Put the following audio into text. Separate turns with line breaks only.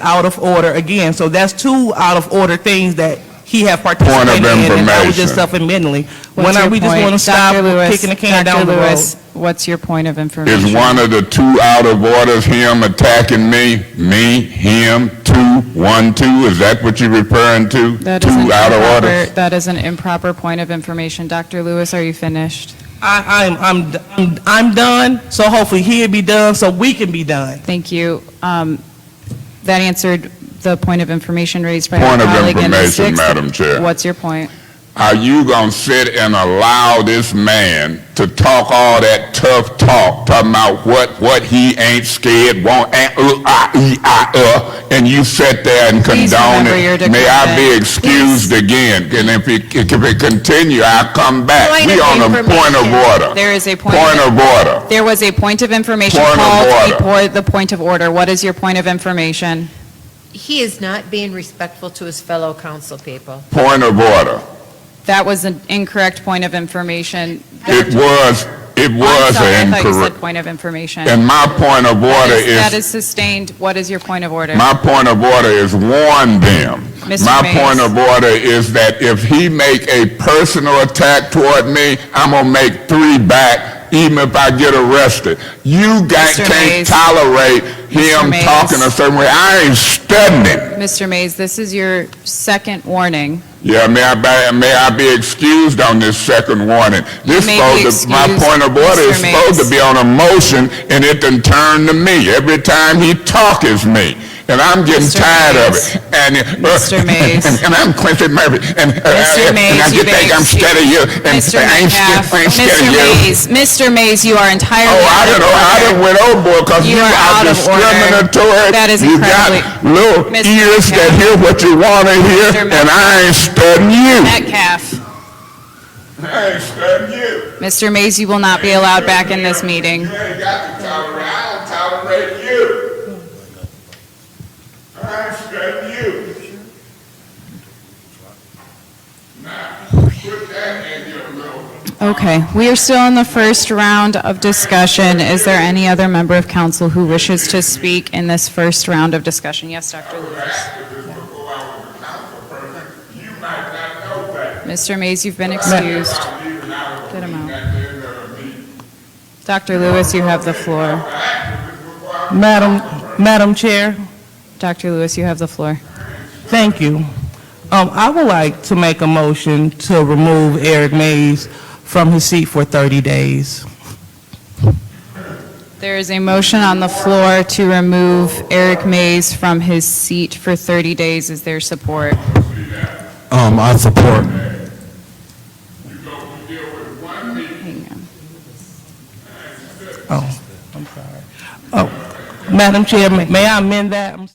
out of order again. So that's two out of order things that he had
of
participated in, and I was just
information.
self-admitting.
What's
When are
your
we just
point?
going to stop
Dr. Lewis,
kicking the can
Dr.
down the road?
Lewis, What's your point of information?
Is one of the two out of orders him attacking me, me, him, two, one, two? Is that what you're referring to?
That
Two
is an
out of
improper-
orders?
That is an improper point of information. Dr. Lewis, are you finished?
I, I'm, I'm, I'm- I'm done, so hopefully he'll be done, so we can be done.
Thank you. Um, That answered the point of information raised by our
Point of
colleague in the
information,
sixth.
Madam Chair.
What's your point?
Are you gonna sit and allow this man to talk all that tough talk, talking about what, what he ain't scared, won't, and, uh, ah, ee, ah, uh, and you sit there and
Please
condone
remember your
it? May I be
decorum.
excused again? And if it, if it continue, I'll come back.
Point
We
of
on a point of
information.
order.
There is a point.
Point of order.
There was a point of information
Point of
called
order.
before the point of order. What is your point of information?
He is not being respectful to his fellow council people.
Point of order.
That was an incorrect point of information.
It was, it
I'm
was
sorry, I thought you said
incorrect.
point of information.
And my point of
That
order
is- That
is,
is sustained. What is your point of order?
my point of order is warn them.
Mr.
My
Mays.
point of order is that if he make a personal attack toward me, I'm gonna make three back, even if I get arrested. You got,
Mr.
can't
Mays.
tolerate
Mr.
him
Mays.
talking a certain way. I ain't studying.
Mr. Mays, this is your second warning.
Yeah, may I, be- may I be excused on this second warning? This
may be
supposed to, my
excused,
point of order is
Mr.
supposed to
Mays.
be on a motion, and it done turned to me. Every time he talk is me, and I'm getting
Mr.
tired of
Mays.
it. And, uh,
Mr. Mays.
And and I'm Quincy Murphy, and, uh,
Mr.
uh, and I
Mays,
get
you've been
think I'm scared of you, and
Mr.
I ain't scared,
Metcalf,
I ain't scared
Mr.
of you.
Mays, Mr. Mays, you are entirely.
Oh, I don't know, I done went overboard, because
You
you
are
are
out of order.
discriminatory.
That is
You got little
Mr.
ears that
Metcalf.
hear what you want to hear,
Mr.
and I ain't studying you.
Metcalf,
I ain't studying you.
Mr. Mays, you will not be allowed back in this meeting.
You ain't got to tolerate, I don't tolerate you. I ain't studying you. Now, put that in your mouth.
Okay, we are still in the first round of discussion. Is there any other member of council who wishes to speak in this first round of discussion? Yes, Dr. Lewis.
Activists before I was a council person, you might not know that.
Mr. Mays, you've been excused.
I'm leaving out of
Get him out.
that end of me.
Dr. Lewis, you have the floor.
Activists before I
Madam, Madam Chair?
Dr. Lewis, you have the floor.
Thank you. Um, I would like to make a motion to remove Eric Mays from his seat for 30 days.
There is a motion on the floor to remove Eric Mays from his seat for 30 days. Is there support?
Um, I support.
go deal with one meeting.
Hang on.
Oh, I'm sorry. Oh, Madam Chair, may may I amend that? I'm